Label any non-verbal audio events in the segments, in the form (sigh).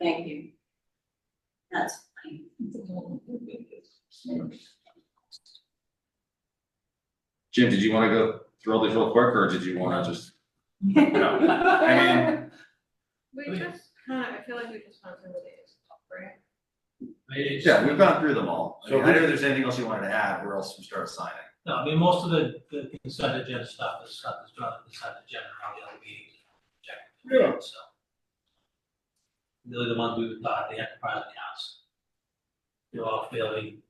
Thank you. That's fine. Jim, did you wanna go through all these real quick, or did you wanna just? No, (laughs) I mean, We just kind of, I feel like we just went through the days, right? It's, yeah, we've gone through them all. I So mean, I who- know there's anything else you wanted to add, or else we start signing. no, I mean, most of the, the consent agenda stuff is stuff that's drawn on the consent agenda, all the other meetings. check, Yeah. So. Really the ones we thought, the enterprise accounts. They're all fairly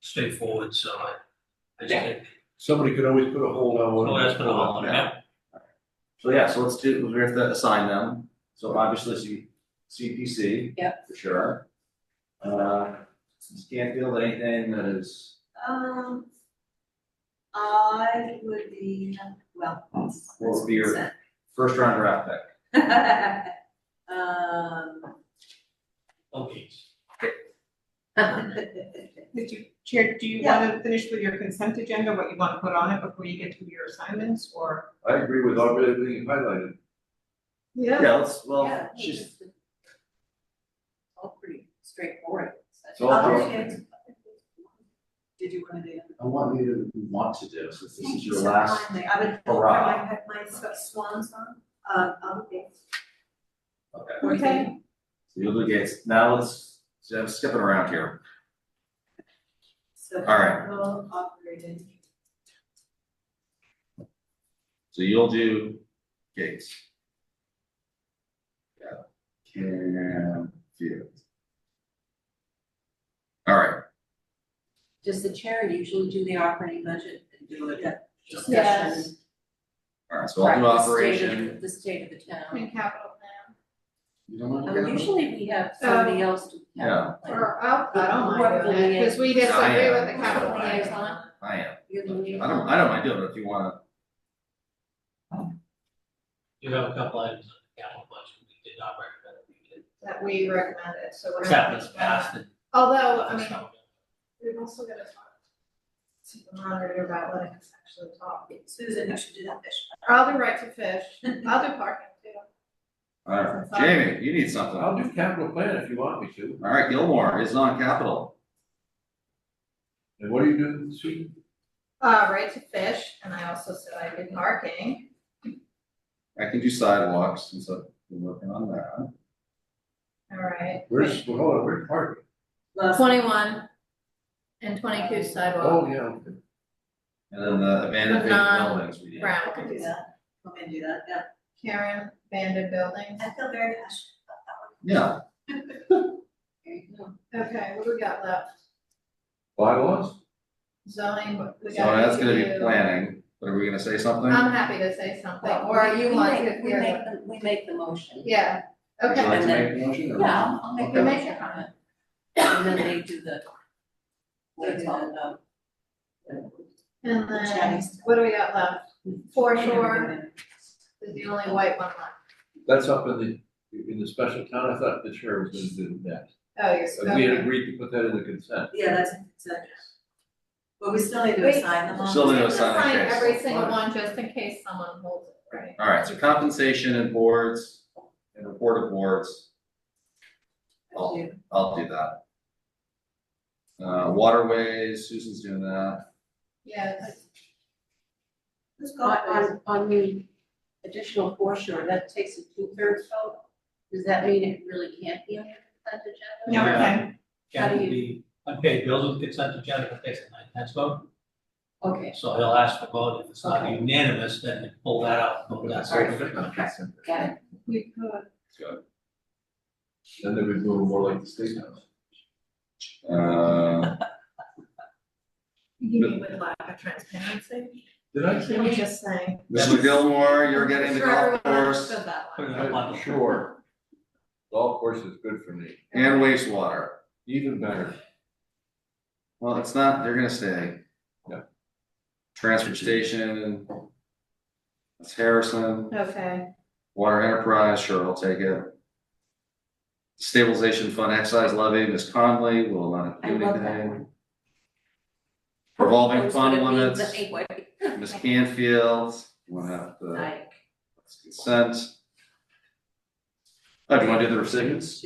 straightforward, so I, I just think, Somebody could always put a hold on one. oh, that's been a hold long on, time. So yeah, so let's do, we have to assign them, so obviously C- CPC. Yep. For sure. Uh, Scanfield, anything that is, Um. I would be, well. that's- What would be your- that's first round draft pick, consent. (laughs) Um. (laughs) Okay. Mr. Chair, do you Yeah. want to finish with your consent agenda, what you want to put on it before you get to your assignments, or? I agree with all- everything you highlighted. yeah, let's, yeah, well, hey, she's, it's All pretty straightforward. It's all Um, broken. Did you want to do? it? I want you to want to do, since this is your last Kindly, I would, I hurrah. have my sw- swans on, uh, I'll be. Okay, Okay. so you'll do Gates, now let's, so I'm skipping around here. So. All right. Will operated. So you'll do Gates. Yeah. Cam Field. All right, Does the chair usually do the operating budget and do it at discussion? Yes. all right, so I'll do Right, the state of- operation. The state of the town. In capital plan, You don't want to Um, go? usually we have somebody else to. Yeah. or, oh, I don't mind doing that. because we did somebody with the Diane. capital Diane. liaison. I am, You're the I don't, I don't mind doing it if you wanna, You have a couple items on the capital budget, we did not recommend it, we did. That we recommended, so we're. Except it's passed and. Although, Oh, I mean, we've also got to talk to the monitor about letting us actually talk. Susan, you should do that fish. (laughs) I'll do right to fish, I'll do parking too. all right, Jamie, you need something. All I'll do capital plan if you want me to. right, Gilmore is on capital, And what are you doing this week? Uh, right to fish, and I also said I did parking. I can do sidewalks, since I've been working on that. All right. Where's, well, hold on, where's Harvey? Twenty-one and twenty-two sidewalk, Oh, yeah, okay. And then the abandoned Nah. vacant buildings we did. I Brown, can do that. Come and do that, yeah. Karen, abandoned buildings. I feel very passionate about that one. Yeah, There you go. Okay, what do we got left? Bylaws? Zoning, what we so got Oh, that's gonna be to do. planning, but are we gonna say something? I'm happy to say something, or We- you we want make- to, We yeah, make, the- we make the motion. yeah, Would okay. you like to And then- make the motion or? Yeah, I'll- I'll make the You make motion it on it. and then they do the. They do all done. um, And then, Chinese. what do we got left? Foreshore is the only white one left. That's up in the, in the special town. I thought the chair was gonna do that. Oh, yes, But we had okay. agreed to put that in the consent. Yeah, that's, that's it. But we still need to Wait. assign them all. Still need to Let's assign. Sign it. every single one, just in case someone holds it, right? All right, so compensation and boards and report of boards, Okay. I'll do that. Uh, waterways, Susan's doing that. Yes, Who's got this? On, on the additional foreshore, that takes a two-thirds vote? Does that mean it really can't be on the consent agenda? No, okay. Kevin will be unpaid bills with consent agenda, but takes a nine tenths vote. Okay, So he'll ask for vote, if it's not unanimous, then pull that out, vote that. All right. Good. got it. we could. Then they would move more like the state house. Uh, You mean with lack of transparency? Did I say? Can we just say? Mr. Gilmore, you're getting the Sure golf everyone course understood that Put one. it in a bundle. Sure. Golf course is good for me, and wastewater. even better. Well, it's not, they're gonna stay. No. Transfer station. That's Harrison, Okay, Water Enterprise, sure, I'll take it. Stabilization Fund Excise Levy, Ms. Conley will uh, not do I anything. love that one. Revolving It's fund gonna be limits. (laughs) the- anyway, Ms. Canfield, we'll have the I- consent. Oh, do you wanna do the recipients?